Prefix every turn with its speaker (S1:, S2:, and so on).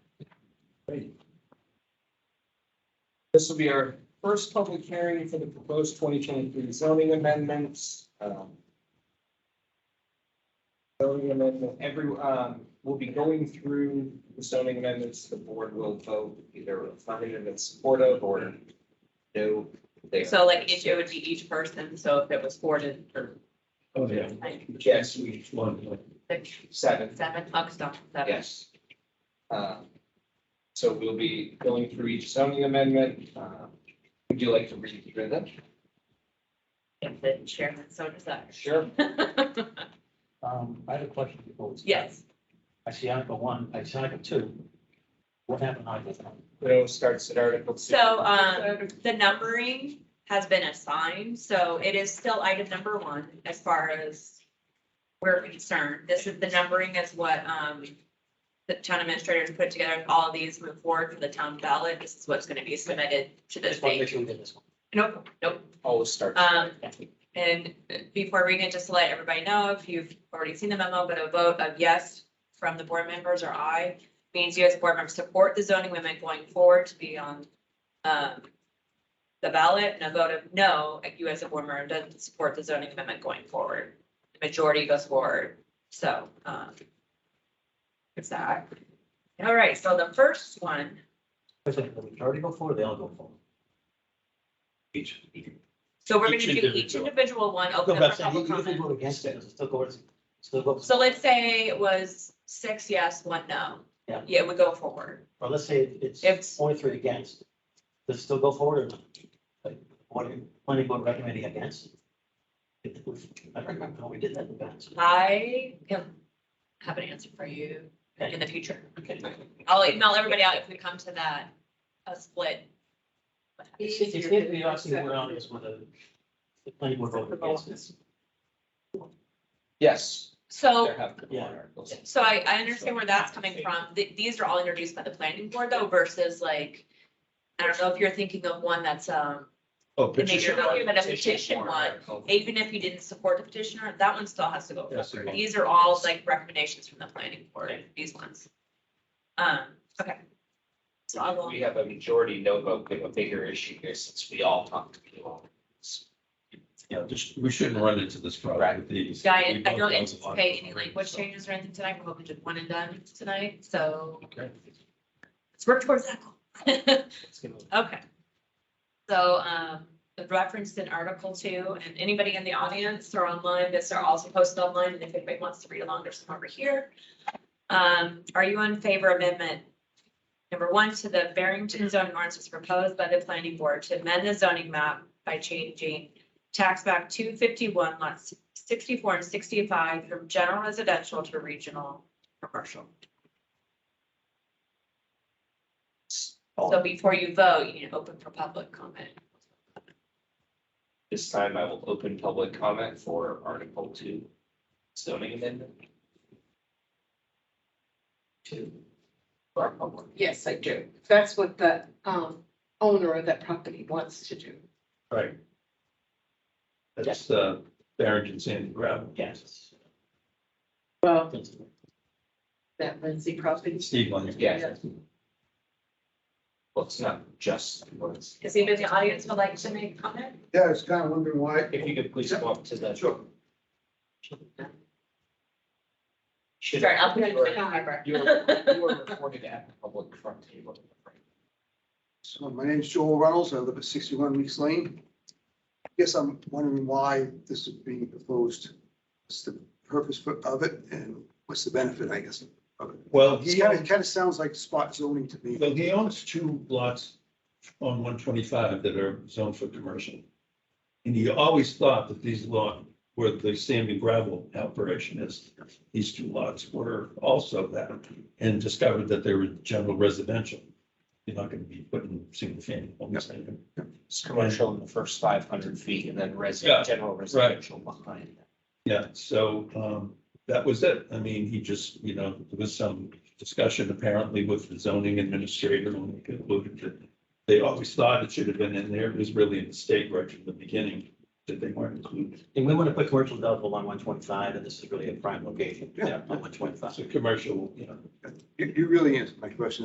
S1: Great. This will be our first public hearing for the proposed twenty twenty-three zoning amendments. Um, Zoning amendment, every, um, we'll be going through the zoning amendments, the board will vote either affirmative and supportive or no. they are-
S2: So like each, it would be each person, so if it was four to, or
S3: Oh, yeah.
S2: like
S1: Yes, we,
S3: One, like,
S2: six,
S1: seven.
S2: seven, oh, stop, seven.
S1: Yes. Um, So we'll be going through each zoning amendment. Um, Would you like to read through them?
S2: If the chairman so desires.
S1: Sure.
S3: Um, I have a question before. we start.
S2: Yes,
S3: I see Article one, I see Article two. What happened to Article one?
S1: It starts at Article two.
S2: so, um, the numbering has been assigned, so it is still item number one as far as we're concerned. This is, the numbering is what, um, the town administrators put together, all of these move forward for the town ballot. This is what's gonna be submitted to the
S3: Just want to make
S2: state.
S3: sure we did this one.
S2: Nope, nope.
S1: Always starts.
S2: Um, and before reading it, just to let everybody know, if you've already seen the memo, but a vote of yes from the board members or aye means you as a board members support the zoning amendment going forward to be on, um, the ballot, and a vote of no, like you as a board member doesn't support the zoning amendment going forward. The Majority goes forward, so, um, it's that. All right, so the first one,
S3: Was it the majority go forward, or they all go forward?
S4: Each.
S2: so we're gonna
S4: Each
S2: do each
S4: individual.
S2: individual one,
S3: Go
S2: open
S3: back,
S2: up
S3: say,
S2: for
S3: you
S2: public
S3: you can
S2: comment.
S3: vote against it, does it still go, does it still go,
S2: So let's say it was six yes, one no.
S3: Yeah.
S2: Yeah, we go forward.
S3: or let's say it's
S2: It's-
S3: forty-three against. Does it still go forward or not? Like, what, are you- planning board recommending against? It was- I don't remember how we did that in the past.
S2: I can have an answer for you in the future.
S3: Okay.
S2: I'll email everybody out if we come to that, a split.
S3: It's, it's, it's, we actually went on this with a, the planning board voted against it.
S1: Yes.
S2: So,
S1: There have been
S3: Yeah.
S1: articles.
S2: so I, I understand where that's coming from. Th- These are all introduced by the planning board though versus like, I don't know if you're thinking of one that's, um,
S4: Oh,
S2: the major
S4: petition.
S2: document, a petition one.
S1: article.
S2: Even if you didn't support the petitioner, that one still has to go
S4: Yes, it
S2: forward.
S4: will.
S2: These are all like recommendations from the planning board, these ones. Um, okay. So I will,
S1: We have a majority no vote, we have a bigger issue here since we all talked to you all.
S4: Yeah, just, we shouldn't run into this problem
S1: Right.
S4: with these.
S2: Yeah, I
S4: We
S2: I
S4: both know
S2: don't
S4: the
S2: anticipate any
S4: line,
S2: language
S4: so.
S2: changes or anything tonight. We're hoping to one and done tonight, so
S4: Okay.
S2: let's work towards that goal.
S3: Let's give it-
S2: Okay. So, um, the referenced in Article Two, and anybody in the audience or online, this are also posted online, and if anybody wants to read along, there's some over here. Um, are you in favor of amendment? Number one, to the Barrington zoning ordinance as proposed by the planning board to amend the zoning map by changing tax map two fifty-one lots sixty-four and sixty-five from general residential to regional commercial. So before you vote, you need to open for public comment.
S1: This time I will open public comment for Article two zoning amendment. Two. For our public.
S5: Yes, I do. That's what the um owner of that property wants to do.
S4: Right. That's uh, the Barrington Sand Gravel.
S3: Yes.
S5: Well, that Lindsay property.
S4: Steve on it.
S1: Yes. Well, it's not just words.
S2: Does anybody in the audience would like to make a comment?
S6: Yeah, I was kind of wondering why.
S1: If you could please come up to the.
S6: Sure.
S1: Should-
S2: Sorry, I'll put it in the
S1: You are
S2: camera.
S1: you are recorded at the public front table.
S6: So my name's Joel Reynolds. I live at sixty-one Weeks Lane. Guess I'm wondering why this is being proposed. What's the purpose for- of it and what's the benefit, I guess?
S4: Well,
S6: It's
S4: he
S6: kind of,
S4: owns,
S6: kind of sounds like spot zoning to me.
S4: well, he owns two lots on one twenty-five that are zoned for commercial. And he always thought that these lot, where the sand and gravel operation is, these two lots were also that. And discovered that they were general residential. You're not gonna be putting single family homes in them.
S1: It's commercial in the first five hundred feet and then resident, general residential behind. that.
S4: Yeah, so um, that was it. I mean, he just, you know, there was some discussion apparently with the zoning administrator and they concluded that they always thought it should have been in there. It was really a mistake right from the beginning that they weren't included.
S3: And we want to put commercial developable on one twenty-five, and this is really a prime location, yeah,
S6: Yeah.
S3: on one twenty-five.
S4: So commercial, you know,
S6: You, you really answered my question.